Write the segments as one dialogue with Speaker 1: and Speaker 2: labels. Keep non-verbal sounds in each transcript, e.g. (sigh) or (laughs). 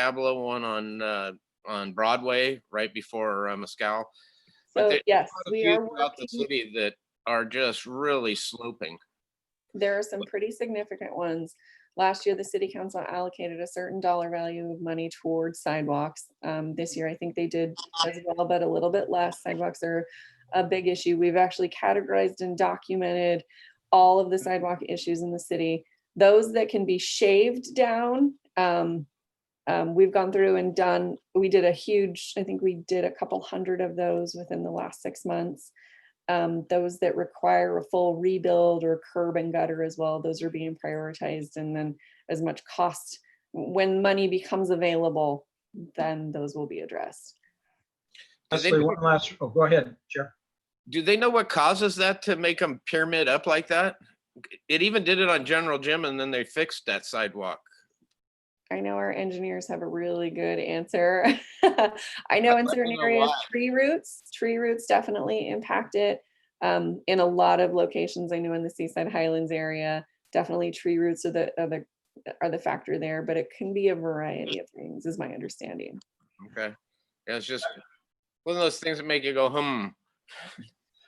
Speaker 1: Pablo one on, uh, on Broadway, right before uh, Mescal. But
Speaker 2: So
Speaker 1: there-
Speaker 2: yes, we
Speaker 1: Few
Speaker 2: are
Speaker 1: Throughout the
Speaker 2: working,
Speaker 1: city that are just really sloping.
Speaker 2: there are some pretty significant ones. Last year, the city council allocated a certain dollar value of money towards sidewalks. Um, this year, I think they did as well, but a little bit less. Sidewalks are a big issue. We've actually categorized and documented all of the sidewalk issues in the city. Those that can be shaved down, um, um, we've gone through and done, we did a huge, I think we did a couple hundred of those within the last six months. Um, those that require a full rebuild or curb and gutter as well, those are being prioritized and then as much cost. When money becomes available, then those will be addressed.
Speaker 1: Do they,
Speaker 3: Leslie, one last, oh, go ahead, Chair.
Speaker 1: do they know what causes that to make them pyramid up like that? It even did it on General Gym and then they fixed that sidewalk.
Speaker 2: I know our engineers have a really good answer. (laughs) I know
Speaker 1: I'd like
Speaker 2: in
Speaker 1: to
Speaker 2: certain
Speaker 1: know
Speaker 2: areas,
Speaker 1: why.
Speaker 2: tree roots, tree roots definitely impact it. Um, in a lot of locations, I know in the Seaside Highlands area, definitely tree roots are the, are the, are the factor there, but it can be a variety of things is my understanding.
Speaker 1: Okay. Yeah, It's just one of those things that make you go, hmm.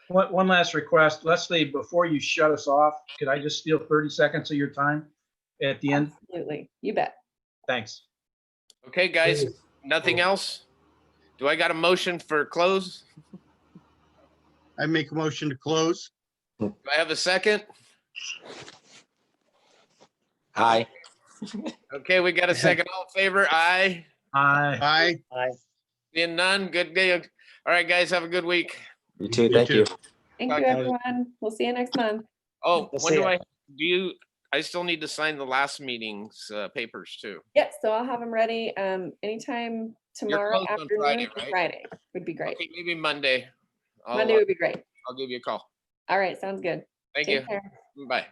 Speaker 3: One, one last request. Leslie, before you shut us off, could I just steal 30 seconds of your time at the end?
Speaker 2: Absolutely. You bet.
Speaker 3: Thanks.
Speaker 1: Okay, guys, nothing else? Do I got a motion for close?
Speaker 4: I make a motion to close.
Speaker 1: Do I have a second?
Speaker 5: Hi.
Speaker 1: Okay, we got a second. All in favor? Aye.
Speaker 3: Aye.
Speaker 4: Aye.
Speaker 1: Seeing none? Good day. All right, guys, have a good week.
Speaker 5: You too. Thank
Speaker 4: too.
Speaker 5: you.
Speaker 2: Thank you,
Speaker 1: Okay.
Speaker 2: everyone. We'll see you next month.
Speaker 1: Oh,
Speaker 5: We'll
Speaker 1: when
Speaker 5: see
Speaker 1: do
Speaker 5: ya.
Speaker 1: I, do you, I still need to sign the last meeting's uh, papers too.
Speaker 2: Yeah, so I'll have them ready, um, anytime tomorrow
Speaker 1: closed on Friday, right?
Speaker 2: afternoon, Friday would be great.
Speaker 1: Okay, maybe Monday. I'll,
Speaker 2: Monday
Speaker 1: uh,
Speaker 2: would be great.
Speaker 1: I'll give you a call.
Speaker 2: All right, sounds good.
Speaker 1: Thank you.
Speaker 2: Take care.
Speaker 1: Bye.